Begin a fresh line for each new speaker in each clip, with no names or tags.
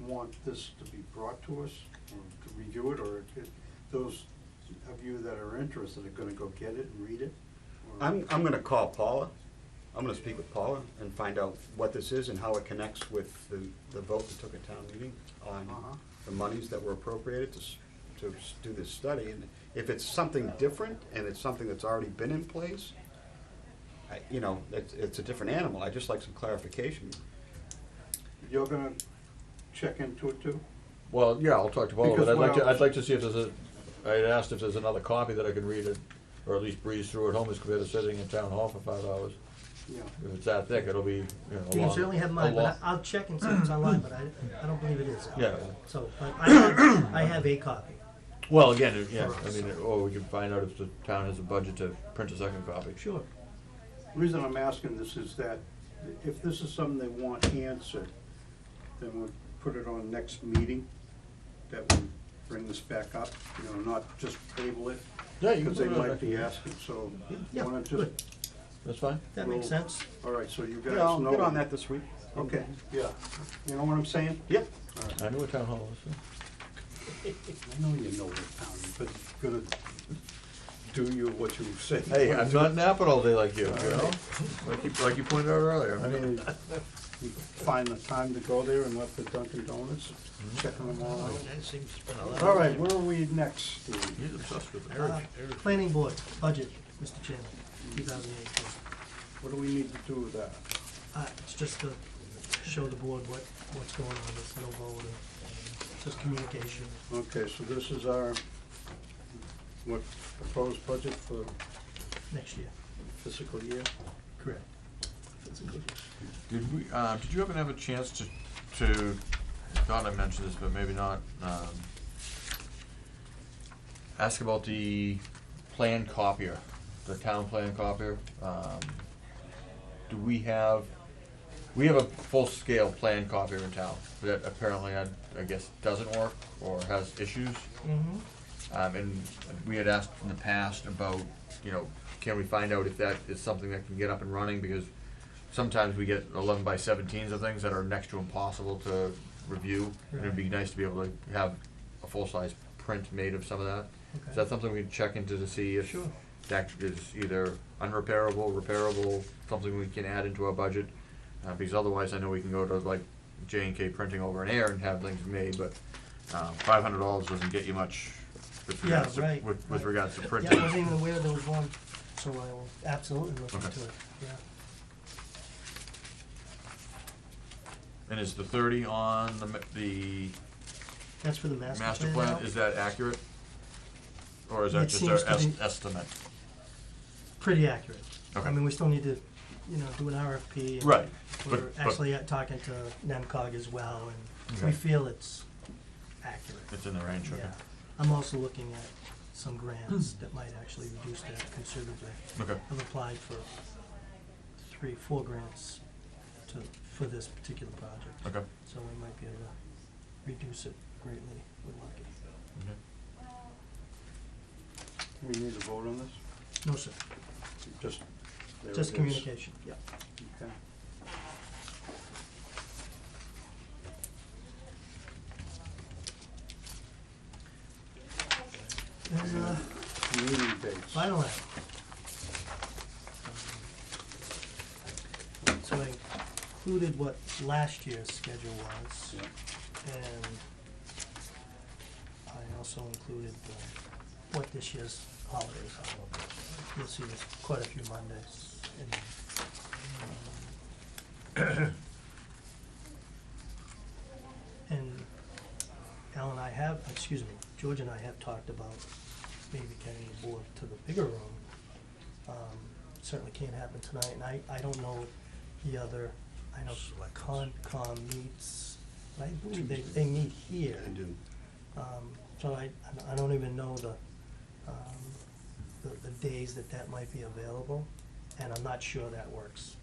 want this to be brought to us or to review it, or if those of you that are interested are gonna go get it and read it? or-
I'm, I'm gonna call Paula, I'm gonna speak with Paula and find out what this is and how it connects with the, the vote that took at town meeting
Uh-huh.
on the monies that were appropriated to, s- to s- do this study, and if it's something different and it's something that's already been in place, I, you know, it's, it's a different animal, I'd just like some clarification.
You're gonna check into it too?
Well, yeah, I'll talk to Paul, but
Because
I'd like
what
to,
I was-
I'd like to see if there's a, I had asked if there's another copy that I could read it, or at least breeze through at home as compared to sitting in town hall for five hours.
Yeah.
If it's that thick, it'll be, you know, a
You can
long-
certainly have
a
mine,
long-
but I- I'll check and see if it's online, but I, I don't believe it is.
Yeah.
So, but I have, I have a copy.
Well, again, it- yeah,
For
I
us.
mean, or we can find out if the town has a budget to print a second copy.
Sure.
Reason I'm asking this is that if this is something they want answered, then we'll put it on next meeting, that we bring this back up, you know, not just table it,
Yeah, you can
because they
put it on
might
next
be
meeting.
asking, so.
Yeah,
why not just-
good.
That's fine.
That makes
Well-
sense.
All right, so you guys
Yeah, I'll
know.
get on that this week.
Okay, yeah, you know what I'm saying?
Yep,
I know what town hall is.
I know you know what town, but you're gonna do you what you say.
Hey, I'm not napping all day like you, you know? Like you, like you pointed out earlier.
I mean, you find the time to go there and let the Dunkin' Donuts, checking them all out.
That seems to spend a lot.
All right, where are we next, Steve?
He's obsessed with it.
Uh, Planning board, budget, Mr. Chairman, two thousand eighteen.
What do we need to do with that?
Uh, it's just to show the board what, what's going on, it's no vote, and it's just communication.
Okay, so this is our, what, proposed budget for
next year.
fiscal year?
Correct.
Did we, uh, did you happen to have a chance to, to, thought I mentioned this, but maybe not, um, ask about the plan copier, the town plan copier? Um, do we have, we have a full-scale plan copier in town that apparently, I, I guess, doesn't work or has issues?
Mm-hmm.
Um, and we had asked in the past about, you know, can we find out if that is something that can get up and running, because sometimes we get eleven by seventeens of things that are next to impossible to review, and it'd be nice to be able to have a full-size print made of some of that.
Okay.
Is that something we can check into to see if
Sure.
that is either unrepairable, repairable, something we can add into our budget? Uh, because otherwise, I know we can go to like J and K Printing over an air and have things made, but, uh, five hundred dollars doesn't get you much with
Yeah,
regards to,
right,
with, with
right.
regards to
Yeah, I
printing.
wasn't even aware there was one, so I will absolutely look
Okay.
into it, yeah.
And is the thirty on the, ma- the
That's for the master plan.
master plan,
now?
is that accurate? Or is that
It
just
seems
our
to
est-
be-
estimate?
Pretty accurate.
Okay.
I mean, we still need to, you know, do an RFP. and
Right, but,
We're
but
actually uh, talking to NEMCOG as well, and
Okay.
we feel it's accurate,
it's in the range, okay,
yeah. I'm also looking at some grants that might actually reduce that considerably.
okay,
I've applied for three, four grants to, for this particular project.
okay.
So we might be able to reduce it greatly, we're lucky.
okay.
We need to vote on this?
No, sir,
Just, there it
just
is.
communication, yeah.
Okay.
There's a
Meeting dates.
final item. So I included what last year's schedule was,
Yeah.
and I also included the- what this year's holidays are. You'll see there's quite a few Mondays in there. And Al and I have, excuse me, George and I have talked about maybe getting the board to the bigger room. Um, Certainly can't happen tonight, and I, I don't know the other, I know Concom meets, but I believe they, they meet here.
I do.
Um, so I, I don't even know the, um, the, the days that that might be available, and I'm not sure that works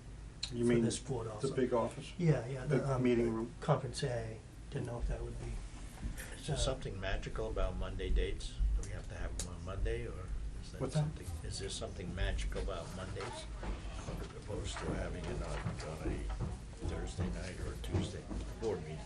You
for
mean
this board also.
the big office?
Yeah, yeah,
big
the, um,
meeting room?
Conference A, didn't know if that would be,
Is there something magical about Monday dates? Do we have to have them on Monday, or is that
What's that?
something? Is there something magical about Mondays opposed to having it on, on a Thursday night or a Tuesday board meeting?